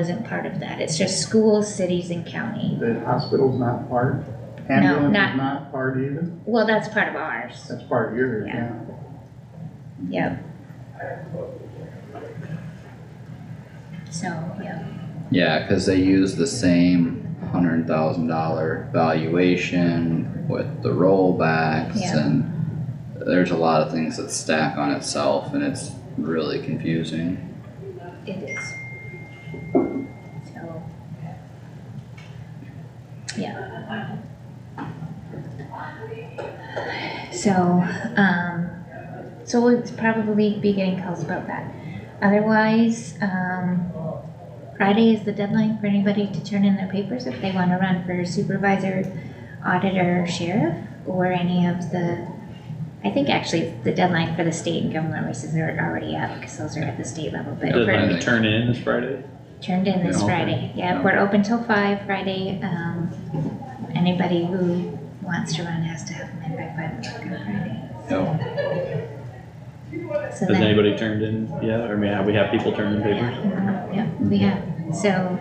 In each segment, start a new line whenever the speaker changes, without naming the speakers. isn't part of that, it's just schools, cities and county.
The hospital's not part,
No,
ambulance
not-
is not part either,
Well, that's part of ours,
that's part of yours,
Yeah.
yeah.
yep. So, yep,
Yeah, cause they use the same hundred thousand dollar valuation with the rollbacks
Yeah.
and there's a lot of things that stack on itself and it's really confusing.
it is. So. Yeah. So, um, so we'll probably be getting calls about that. Otherwise, um, Friday is the deadline for anybody to turn in their papers if they wanna run for supervisor, auditor, sheriff, or any of the, I think actually the deadline for the state and government races are already up, cause those are at the state level, but
Yeah.
for
Deadline
Friday.
to turn in is Friday?
Turned in this
Yeah, okay.
Friday, yeah,
Yeah.
we're open till five Friday, um, anybody who wants to run has to have them in by five o'clock on Friday.
Yep.
So
Has
then,
anybody turned in yet? Or I mean, have we had people turn in papers?
yeah, yeah, uh, we have, so,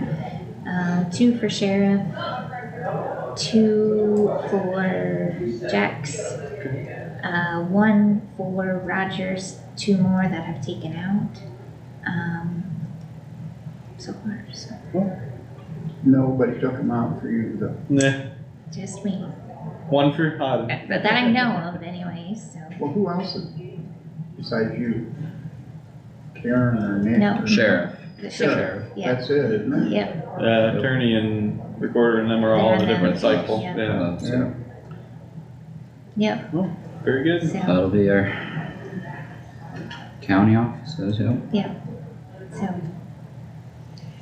um, two for sheriff, two for Jax, uh, one for Rogers, two more that I've taken out, um, so far, so,
Nobody took them out for you, though.
Nah,
just me,
one for uh, Hodden.
but that I know of anyways, so.
Well, who else is, besides you? Karen or Nick?
No.
or-
Sheriff,
The sheriff,
Sheriff,
yeah.
that's it, isn't it?
yep,
Uh, attorney and recorder and them are all in a different cycle.
Yeah.
Yeah,
uh, so
yep,
very good.
so,
that'll be our county offices, yep.
so.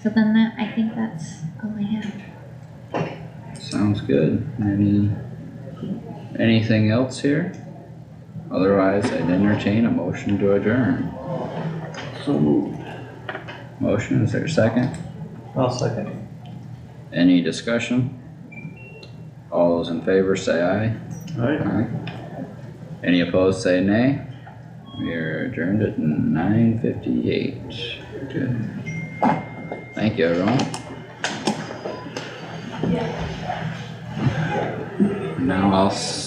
So then that, I think that's all I have.
Sounds good. Any, anything else here? Otherwise, I'd entertain a motion to adjourn.
So moved.
Motion, is there a second?
I'll second.
Any discussion? All those in favor say aye.
Alright.
Aye. Any opposed say nay. We are adjourned at nine fifty-eight. Good. Thank you, everyone. Now I'll s-